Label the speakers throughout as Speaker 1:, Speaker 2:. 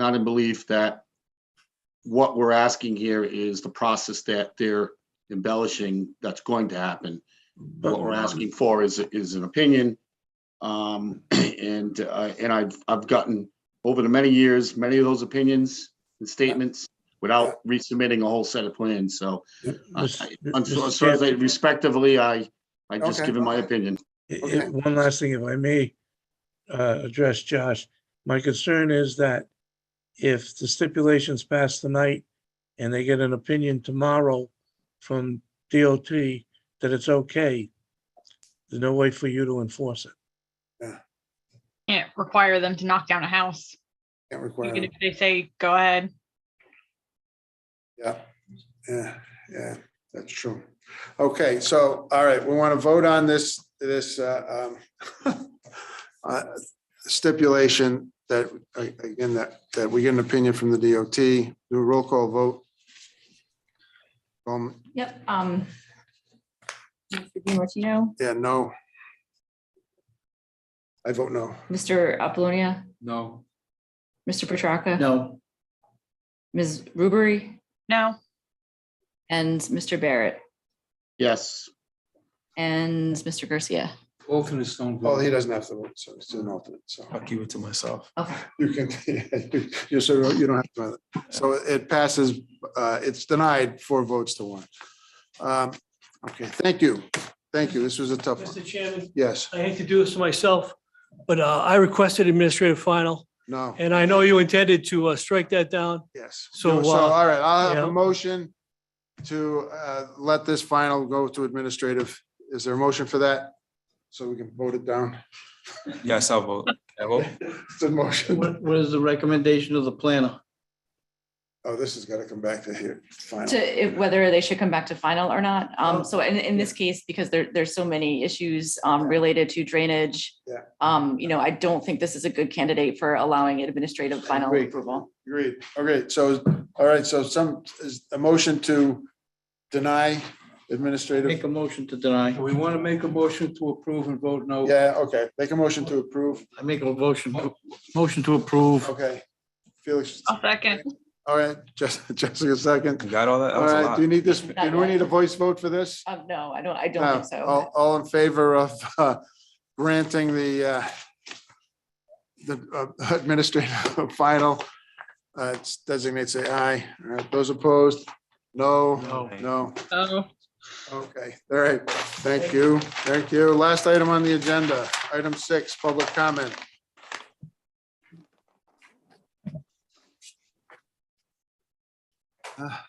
Speaker 1: not in belief that what we're asking here is the process that they're embellishing that's going to happen. What we're asking for is, is an opinion. Um, and, uh, and I've, I've gotten over the many years, many of those opinions and statements without resubmitting a whole set of plans, so.
Speaker 2: Yep.
Speaker 1: uh,
Speaker 2: Mis-
Speaker 1: I-
Speaker 2: mi-
Speaker 1: I'm so,
Speaker 2: Mr.
Speaker 1: so I say
Speaker 2: Chair,
Speaker 1: respectively, I, I just
Speaker 3: Okay.
Speaker 1: given my opinion.
Speaker 2: i-
Speaker 3: okay.
Speaker 2: i- eh, One last thing, if I may, uh, address Josh. My concern is that if the stipulations pass tonight and they get an opinion tomorrow from DOT that it's okay, there's no way for you to enforce it.
Speaker 4: can't require them to knock down a house.
Speaker 3: Can't require,
Speaker 4: Even
Speaker 3: them.
Speaker 4: if they say, go ahead.
Speaker 3: yeah, yeah, yeah, that's true. Okay, so, all right, we want to vote on this, this uh, um, uh, stipulation that, a- again, that, that we get an opinion from the DOT, do a roll call vote. Um,
Speaker 5: Yep, um. Mr. DiMartino,
Speaker 3: yeah, no. I vote no.
Speaker 5: Mr. Apollonia,
Speaker 6: No.
Speaker 5: Mr. Petracca.
Speaker 6: No.
Speaker 5: Ms. Rubery
Speaker 4: No,
Speaker 5: and Mr. Barrett
Speaker 1: Yes,
Speaker 5: and Mr. Garcia.
Speaker 6: Alternates don't
Speaker 3: Well, Oh, he
Speaker 6: vote.
Speaker 3: doesn't have to vote, so it's an alternate, so.
Speaker 6: I'll keep it to myself.
Speaker 5: Okay,
Speaker 3: You can, you sort of, you don't have to, so it passes, uh, it's denied four votes to one. Um, Okay, thank you. Thank you. This was a tough one.
Speaker 7: Mr. Chairman,
Speaker 3: Yes,
Speaker 7: I hate to do this to myself, but uh, I requested administrative final,
Speaker 3: no,
Speaker 7: and I know you intended to uh, strike that down.
Speaker 3: yes.
Speaker 7: So,
Speaker 3: So,
Speaker 7: uh,
Speaker 3: all right, I'll have a
Speaker 7: yeah.
Speaker 3: motion to uh, let this final go to administrative. Is there a motion for that? So we can vote it down.
Speaker 8: Yes, I'll vote. I vote.
Speaker 3: It's a motion.
Speaker 6: What is the recommendation of the planner?
Speaker 3: Oh, this has got to come back to here. Final.
Speaker 5: to if- whether they should come back to final or not. Um, so in, in this case, because there, there's so many issues, um, related to drainage.
Speaker 3: Yeah.
Speaker 5: Um, you know, I don't think this is a good candidate for allowing administrative final
Speaker 3: Agreed.
Speaker 5: approval.
Speaker 3: Agreed. Okay, so, all right, so some, is a motion to deny administrative?
Speaker 6: Make a motion to deny. We want to make a motion to approve and vote no.
Speaker 3: Yeah, okay, make a motion to approve.
Speaker 6: I make a motion, motion to approve.
Speaker 3: Okay. Felix,
Speaker 4: I'll second.
Speaker 3: all right, Jess- Jessica,
Speaker 8: You
Speaker 3: second.
Speaker 8: got all that? That
Speaker 3: All
Speaker 8: was a
Speaker 3: right,
Speaker 8: lot.
Speaker 3: do you need this, do we need a voice vote for this?
Speaker 5: Um, no, I don't, I don't think
Speaker 3: No. Oh.
Speaker 5: so.
Speaker 3: All, all in favor of uh, granting the, uh, the uh, administrative final, uh, it's designates say aye. All right, Those opposed? No,
Speaker 6: No.
Speaker 3: no.
Speaker 4: Oh,
Speaker 3: Okay, all right, thank you, thank you. Last item on the agenda, item six, public comment. Ah.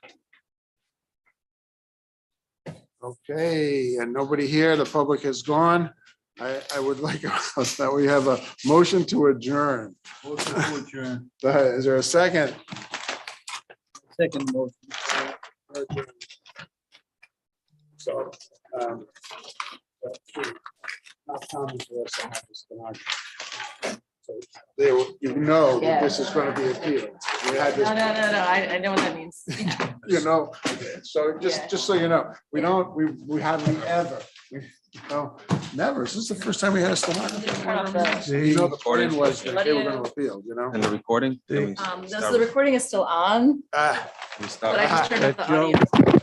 Speaker 3: Okay, and nobody here, the public is gone. I, I would like us that we have a motion to adjourn.
Speaker 6: Motion to adjourn.
Speaker 3: Uh, Is there a second?
Speaker 6: Second motion.
Speaker 3: So. um, but, hmm, not common for us to have this democracy. So, They, will- you know, that this is going to be appealed. We had
Speaker 5: No, no, no,
Speaker 3: this,
Speaker 5: no, I, I know what that means.
Speaker 3: you know, so just,
Speaker 5: Yeah.
Speaker 3: just so you know, we don't, we, we hardly ever, we, you know, never. This is the first time we had a
Speaker 5: Um,
Speaker 3: stenographer. You know, the plan was that they were going to appeal, you know?
Speaker 8: And the recording? Can we
Speaker 5: Um, no, so
Speaker 8: stop-
Speaker 5: the recording is still on,
Speaker 3: Ah.
Speaker 8: can we
Speaker 5: but I
Speaker 8: stop?
Speaker 6: Uh,
Speaker 5: just turned
Speaker 2: Let
Speaker 5: up the
Speaker 2: Joe-
Speaker 5: audio.